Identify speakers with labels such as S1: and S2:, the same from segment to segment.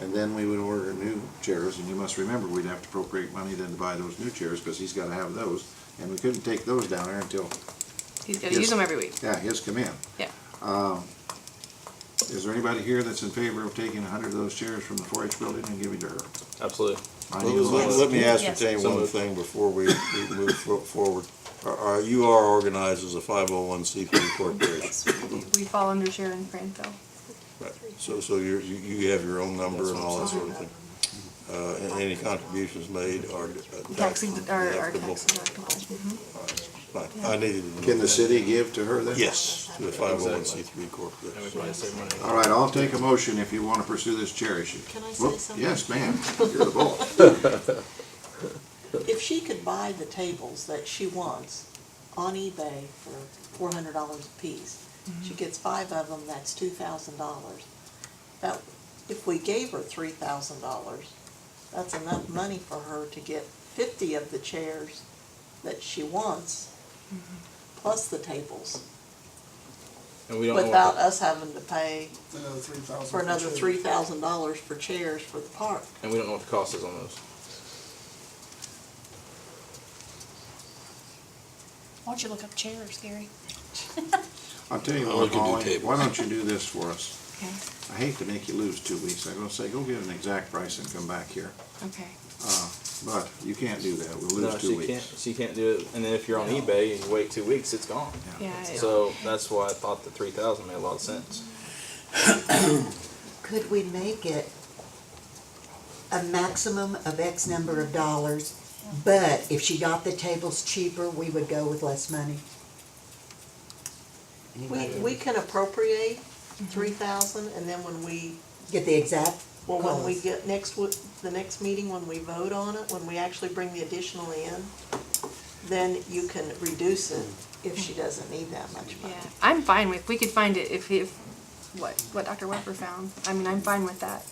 S1: And then we would order new chairs, and you must remember, we'd have to appropriate money then to buy those new chairs, because he's gotta have those. And we couldn't take those down there until,
S2: He's got to
S1: Yes.
S2: use them every week.
S1: yeah, his come in.
S2: Yeah.
S1: Is there anybody here that's in favor of taking a hundred of those chairs from the four H building and giving to her?
S3: Absolutely.
S1: I
S4: Well,
S1: need a
S4: Let
S1: motion.
S4: let me ascertain
S3: Yes.
S4: one thing before we we move fo- forward. Are- Are, you are organized as a five oh one C three corporation?
S2: Yes, we do. We fall under Sharon Franco.
S4: Right. So, so you're, you, you have your own number and all that sort of thing. Uh, and any contributions made are uh, tax
S2: Taxes, our, our
S4: deductible.
S2: taxes are compulsory.
S4: Fine. I needed to know
S1: Can the
S4: that.
S1: city give to her then?
S4: Yes, to the five oh one C three corporation.
S3: And we probably save money.
S1: All right, I'll take a motion if you wanna pursue this chair issue.
S5: Can I say
S1: Whoop,
S5: something?
S1: Yes, ma'am, you're the boss.
S5: If she could buy the tables that she wants on eBay for four hundred dollars a piece,
S6: Mm-hmm.
S5: she gets five of them, that's two thousand dollars. That, if we gave her three thousand dollars, that's enough money for her to get fifty of the chairs that she wants,
S6: Mm-hmm.
S5: plus the tables,
S3: And we don't know what
S5: without
S3: the-
S5: us having to pay
S7: Another three thousand.
S5: for another three thousand dollars for chairs for the park.
S3: And we don't know what the cost is on those.
S8: Why don't you look up chairs, Gary?
S1: I'll tell you
S4: Oh, we
S1: what,
S4: can do
S1: Molly,
S4: tables.
S1: why don't you do this for us?
S2: Okay,
S1: I hate to make you lose two weeks. I'm gonna say, go get an exact price and come back here.
S2: okay.
S1: Uh, But you can't do that. We'll
S3: No,
S1: lose
S3: she
S1: two
S3: can't.
S1: weeks.
S3: She can't do it. And then if you're on
S2: No.
S3: eBay and you wait two weeks, it's gone.
S2: Yeah, I-
S3: So that's why I thought the three thousand made a lot of sense.
S6: Could we make it a maximum of X number of dollars, but if she got the tables cheaper, we would go with less money?
S5: We,
S6: Anybody
S5: we can appropriate three thousand, and then when we
S6: Get the exact
S5: Well, when we
S6: cost.
S5: get, next, wo- the next meeting, when we vote on it, when we actually bring the additional in, then you can reduce it if she doesn't need that much money.
S2: Yeah, I'm fine with, we could find it if, if, what, what Dr. Weber found. I mean, I'm fine with that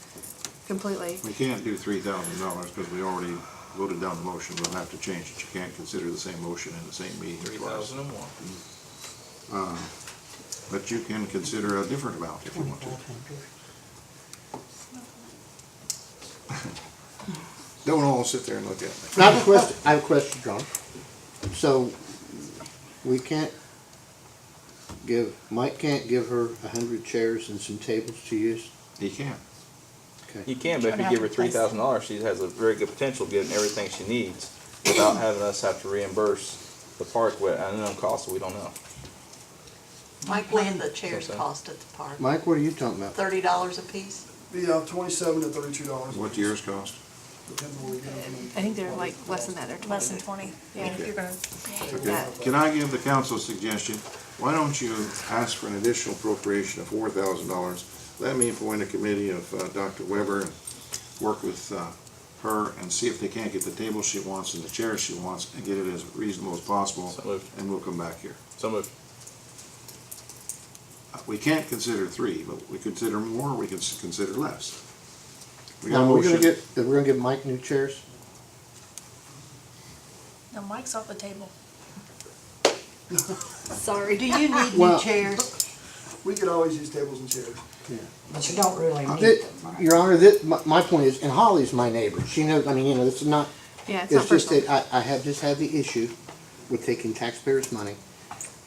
S2: completely.
S1: We can't do three thousand dollars because we already voted down the motion. We'll have to change it. You can't consider the same motion in the same meeting
S3: Three
S1: twice.
S3: thousand and one.
S1: But you can consider a different amount if you want to.
S6: Twenty-five hundred.
S1: Don't all sit there and look at me.
S9: I have a question, I have a question, John. So, we can't give, Mike can't give her a hundred chairs and some tables to use?
S1: He can.
S3: You
S9: Okay.
S3: can, but if you give her three thousand dollars, she has a very good potential of getting everything she needs without having us have to reimburse the park with an unknown cost that we don't know.
S5: Mike, what did the chairs
S3: Okay.
S5: cost at the park?
S9: Mike, what are you talking about?
S5: Thirty dollars a piece?
S7: Yeah, twenty-seven to thirty-two dollars.
S1: What yours cost?
S7: Depends on what we get them.
S2: I think they're like less than that, they're
S8: Less than
S2: twenty.
S8: twenty.
S2: Yeah,
S1: Okay.
S2: you're gonna.
S1: Okay. Can I give the council a suggestion? Why don't you ask for an additional appropriation of four thousand dollars? Let me appoint a committee of uh, Dr. Weber and work with uh, her and see if they can't get the table she wants and the chair she wants and get it as reasonable as possible,
S3: So moved.
S1: and we'll come back here.
S3: Some of
S1: Uh, We can't consider three, but we consider more, we can s- consider less. We got a
S9: Now, we're gonna
S1: motion.
S9: get, we're gonna give Mike new chairs?
S8: No, Mike's off the table.
S6: Sorry. Do you need
S9: Well-
S6: new chairs?
S7: We could always use tables and chairs.
S6: But you don't really need
S9: That-
S6: them, right?
S9: Your Honor, that, my, my point is, and Holly's my neighbor, she knows, I mean, you know, it's not,
S2: Yeah, it's not
S9: it's just that
S2: personal.
S9: I, I have just had the issue with taking taxpayers' money,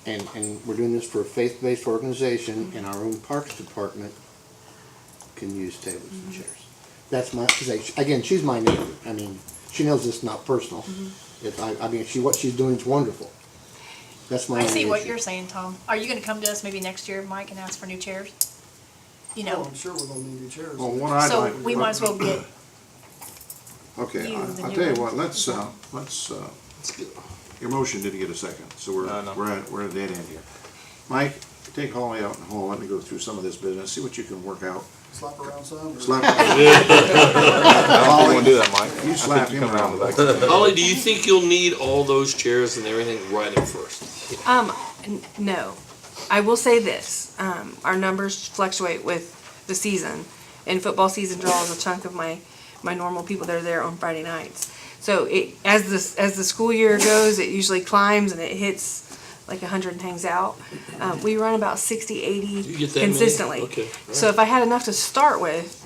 S9: and, and we're doing this for a faith-based
S8: Mm-hmm.
S9: organization, and our own Parks Department can use tables
S8: Mm-hmm.
S9: and chairs. That's my, 'cause I- again, she's my neighbor, I mean, she knows it's not personal.
S8: Mm-hmm.
S9: If, I, I mean, she, what she's doing is wonderful. That's my
S8: I
S9: only
S8: see what
S9: issue.
S8: you're saying, Tom. Are you gonna come to us maybe next year, Mike, and ask for new chairs? You know,
S7: Oh, I'm sure we're gonna need new chairs.
S1: Well, what I'd
S8: so
S1: like.
S8: we might as well get,
S1: Okay,
S8: you
S1: I-
S8: the
S1: I'll
S8: new
S1: tell you
S8: one.
S1: what, let's, uh, let's, uh, your motion didn't get a second, so
S3: No,
S1: we're,
S3: no.
S1: we're at, we're at a dead end here. Mike, take Holly out in the hall, let me go through some of this business, see what you can work out.
S7: Slap around some. or-
S1: Slap,
S3: I don't want to do that, Mike.
S1: you slap him
S3: Come around
S1: around.
S3: the back.
S10: Holly, do you think you'll need all those chairs and everything right at first?
S2: Um, n- no. I will say this, um, our numbers fluctuate with the season. And football season draws a chunk of my, my normal people that are there on Friday nights. So it, as this, as the school year goes, it usually climbs and it hits like a hundred and hangs out. Uh, we run about 60, 80
S10: You get that many?
S2: consistently.
S10: Okay,
S2: So if I had enough to start with,